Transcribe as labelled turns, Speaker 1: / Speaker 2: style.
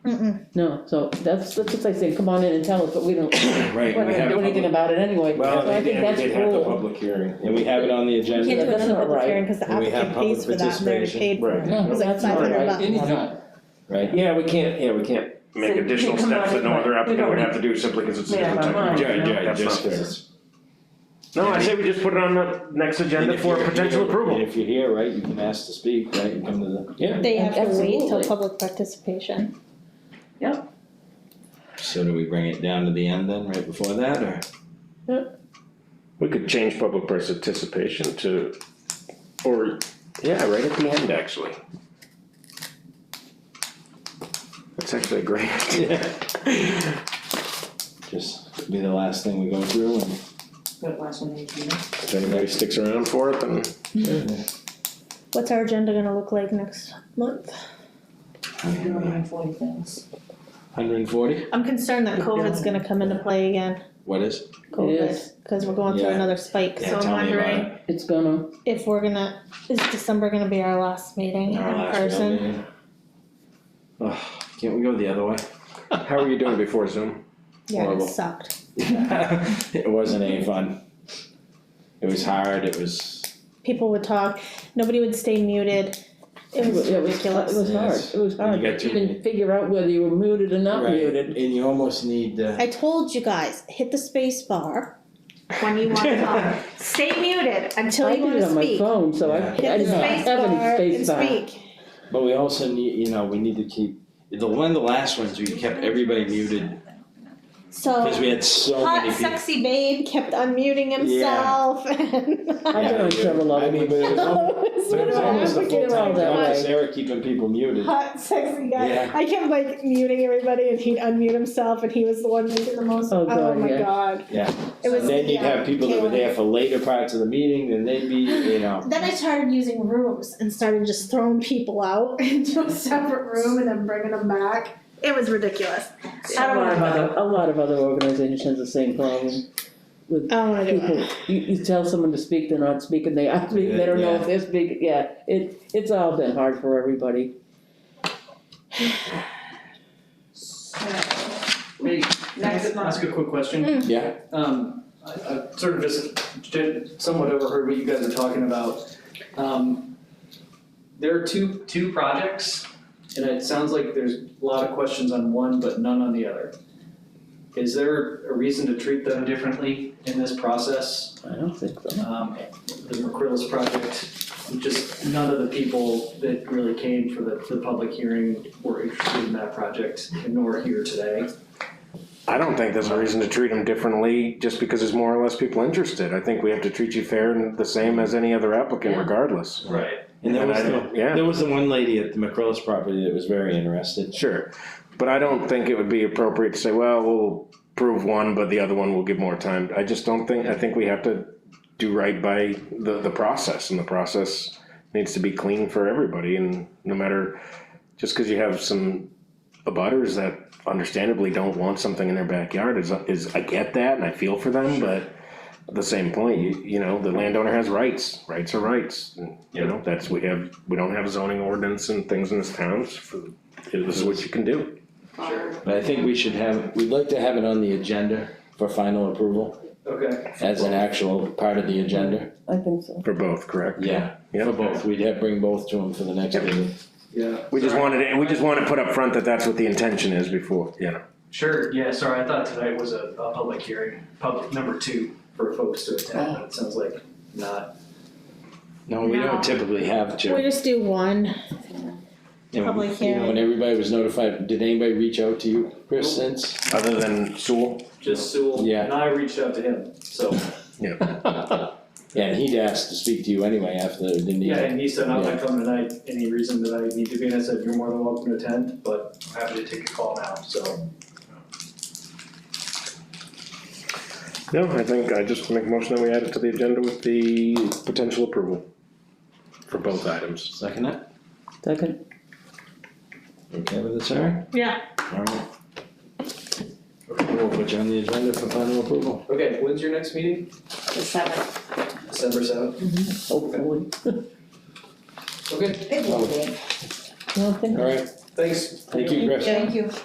Speaker 1: No, so that's, that's what I say, come on in and tell us, but we don't, we
Speaker 2: Right,
Speaker 1: don't
Speaker 2: we have.
Speaker 1: do
Speaker 2: a
Speaker 1: anything
Speaker 2: public-
Speaker 1: about it anyway, so
Speaker 2: Well,
Speaker 1: I
Speaker 2: they
Speaker 1: think
Speaker 2: did,
Speaker 1: that's
Speaker 2: they did have the
Speaker 1: cool.
Speaker 2: public hearing, and we have it on the
Speaker 3: You
Speaker 2: agenda.
Speaker 3: can't do
Speaker 1: that's
Speaker 3: another
Speaker 1: not
Speaker 3: public
Speaker 1: right.
Speaker 3: hearing because the
Speaker 4: And we have
Speaker 3: applicant pays for
Speaker 4: public
Speaker 3: that and they're
Speaker 4: participation.
Speaker 3: paid for
Speaker 2: Right.
Speaker 3: it.
Speaker 2: No,
Speaker 3: It was like
Speaker 1: that's not
Speaker 3: five hundred
Speaker 1: right.
Speaker 3: bucks.
Speaker 5: Anytime.
Speaker 4: right?
Speaker 2: Yeah, we can't, yeah, we can't make
Speaker 6: So you
Speaker 2: additional
Speaker 6: can
Speaker 2: steps that no
Speaker 6: modify-
Speaker 2: other
Speaker 6: we
Speaker 2: applicant
Speaker 6: don't
Speaker 2: would
Speaker 6: need-
Speaker 2: have to do simply because it's a
Speaker 6: Yeah,
Speaker 2: different
Speaker 6: but
Speaker 2: type
Speaker 6: mine,
Speaker 2: of.
Speaker 6: you
Speaker 2: Yeah,
Speaker 6: know?
Speaker 2: yeah,
Speaker 4: That's
Speaker 2: just
Speaker 4: not
Speaker 2: fair.
Speaker 4: fair.
Speaker 2: No, I say we just put it on the next
Speaker 4: And
Speaker 2: agenda
Speaker 4: if
Speaker 2: for
Speaker 4: you're-
Speaker 2: potential
Speaker 4: if you're-
Speaker 2: approval.
Speaker 4: If you're here, right, you can ask to speak, right, you come to the,
Speaker 2: Yeah,
Speaker 3: They have to wait till
Speaker 1: Absolutely.
Speaker 3: public participation.
Speaker 4: so do we bring it down to the end then, right before that, or?
Speaker 2: we could change public participation to, or, yeah, right at the end, actually. That's actually a great idea.
Speaker 4: Just be the last thing we go through and
Speaker 6: That last one, you know?
Speaker 2: If anybody sticks around for it, then.
Speaker 3: What's our agenda gonna look like next month?
Speaker 6: You're around forty things.
Speaker 4: hundred and forty,
Speaker 3: I'm concerned that COVID's gonna come into play again,
Speaker 4: what is?
Speaker 1: is.
Speaker 3: COVID, cause we're going through
Speaker 4: Yeah.
Speaker 3: another spike,
Speaker 4: Yeah,
Speaker 3: so I'm
Speaker 4: tell me about
Speaker 3: wondering
Speaker 1: It's gonna,
Speaker 3: if we're gonna, is December gonna be our last meeting in
Speaker 4: Our last real
Speaker 3: person?
Speaker 4: meeting. Ugh, can't we go the other way?
Speaker 2: How were you doing before Zoom?
Speaker 3: Yeah, it
Speaker 4: Horrible.
Speaker 3: sucked.
Speaker 4: It wasn't any fun. It was hard, it was,
Speaker 3: People would talk, nobody would stay muted,
Speaker 1: it
Speaker 3: it
Speaker 1: was,
Speaker 3: was
Speaker 1: it was
Speaker 3: ridiculous.
Speaker 1: hard,
Speaker 4: Yes.
Speaker 1: it was hard to
Speaker 4: got two-
Speaker 1: even figure out whether you were muted or not
Speaker 4: Right.
Speaker 1: muted.
Speaker 4: and you almost need uh
Speaker 3: I told you guys, hit the space bar when you wanna talk, stay muted until you wanna
Speaker 1: I did
Speaker 3: speak.
Speaker 1: it on my phone, so I, I
Speaker 4: Yeah.
Speaker 1: didn't
Speaker 3: Hit the space
Speaker 1: have
Speaker 3: bar
Speaker 1: any
Speaker 3: and
Speaker 1: space time.
Speaker 3: speak.
Speaker 4: But we also need, you know, we need to keep, the, one of the last ones, we kept everybody muted, cause
Speaker 3: So
Speaker 4: we had so
Speaker 3: hot
Speaker 4: many people.
Speaker 3: sexy babe kept unmuting himself and
Speaker 1: I did on
Speaker 4: Yeah,
Speaker 1: several
Speaker 4: I
Speaker 1: other
Speaker 4: mean,
Speaker 1: ones.
Speaker 4: but it was almost,
Speaker 3: was
Speaker 4: it was almost a
Speaker 1: advocate
Speaker 4: full time
Speaker 1: all that
Speaker 4: job,
Speaker 1: way.
Speaker 4: Sarah keeping people muted.
Speaker 3: Hot sexy guy.
Speaker 4: Yeah.
Speaker 3: I kept like muting everybody and he'd unmute himself and he was the one making the most
Speaker 1: Oh,
Speaker 3: oh,
Speaker 1: God,
Speaker 3: my
Speaker 1: yeah.
Speaker 3: god.
Speaker 4: Yeah.
Speaker 3: It was
Speaker 4: And then you'd
Speaker 3: yeah,
Speaker 4: have people that were there for later parts of the meeting, then they'd be, you know,
Speaker 3: Then I started using rooms and started just throwing people out into a separate room and then bringing them back. It was ridiculous. I
Speaker 1: A lot
Speaker 3: don't want
Speaker 1: of
Speaker 3: to do
Speaker 1: other, a lot of other organizations, the same problem.
Speaker 3: it. I don't want to do
Speaker 1: People,
Speaker 3: it.
Speaker 1: you, you tell someone to speak, they're not speaking, they are speaking, they don't know if they're speaking, yeah, it, it's all been hard for everybody.
Speaker 6: So,
Speaker 7: Hey, can I
Speaker 6: Next
Speaker 7: ask-
Speaker 6: month.
Speaker 7: ask a quick question?
Speaker 3: Mm.
Speaker 4: Yeah.
Speaker 7: Um, I, I sort of just did- somewhat overheard what you guys were talking about. Um, there are two, two projects, and it sounds like there's a lot of questions on one, but none on the other. Is there a reason to treat them differently in this process?
Speaker 1: I don't think so.
Speaker 7: um, the McCrillis project, just none of the people that really came for the, for the public hearing were interested in that project, nor here today.
Speaker 2: I don't think there's a reason to treat them differently just because there's more or less people interested. I think we have to treat you fair and the same as any other applicant
Speaker 1: Yeah.
Speaker 2: regardless.
Speaker 7: Right.
Speaker 4: and there
Speaker 2: And
Speaker 4: was
Speaker 2: I
Speaker 4: the,
Speaker 2: don't- yeah.
Speaker 4: there was the one lady at the McCrillis property that was very interested.
Speaker 2: Sure, but I don't think it would be appropriate to say, well, we'll prove one, but the other one will give more time. I just don't think, I think we have to do right by the, the process, and the process needs to be clean for everybody, and no matter, just cause you have some abutters that understandably don't want something in their backyard is, is, I get that and I feel for them, but at the same point, you, you know, the landowner has rights, rights are rights, and, you know, that's, we have, we don't have zoning ordinance and things in this town, so this is what you can do.
Speaker 4: But I think we should have, we'd like to have it on the agenda for final approval,
Speaker 7: Okay,
Speaker 4: as an actual part of the agenda,
Speaker 1: I think so.
Speaker 2: For both, correct?
Speaker 4: yeah,
Speaker 2: Yeah.
Speaker 4: for both, we'd have, bring both to them for the next
Speaker 2: Yep.
Speaker 4: meeting.
Speaker 7: yeah.
Speaker 2: We just
Speaker 7: Sorry.
Speaker 2: wanted, it- we just want to put up front that that's what the intention is before, you know.
Speaker 7: Sure, yeah, sorry, I thought tonight was a, a public hearing, public number two for folks to attend, but it sounds like not.
Speaker 4: No, we
Speaker 3: No.
Speaker 4: don't typically have to.
Speaker 3: We just do one.
Speaker 4: And,
Speaker 3: public
Speaker 4: You know,
Speaker 3: hearing.
Speaker 4: when everybody was notified, did anybody reach out to you, Chris, since?
Speaker 2: Other than Sewell,
Speaker 7: Just Sewell,
Speaker 4: Yeah.
Speaker 7: and I reached out to him, so,
Speaker 4: Yeah, and he'd asked to speak to you anyway after, didn't he?
Speaker 7: yeah, and he said, I'm
Speaker 4: Yeah.
Speaker 7: not coming tonight, any reason that I need to be, and I said, you're more than welcome to attend, but I'm happy to take a call now, so.
Speaker 2: no, I think I just make a motion that we add it to the agenda with the potential approval for both items.
Speaker 4: Second it?
Speaker 1: Second,
Speaker 4: Okay with it, Sarah?
Speaker 3: Yeah.
Speaker 4: Alright. We'll put you on the agenda for final approval.
Speaker 7: Okay, when's your next meeting?
Speaker 6: The seventh,
Speaker 7: December seventh?
Speaker 1: hopefully.
Speaker 7: Okay,
Speaker 6: it will be.
Speaker 1: Well, I think
Speaker 4: Alright,
Speaker 7: thanks.
Speaker 4: thank you, Chris.
Speaker 6: Thank you.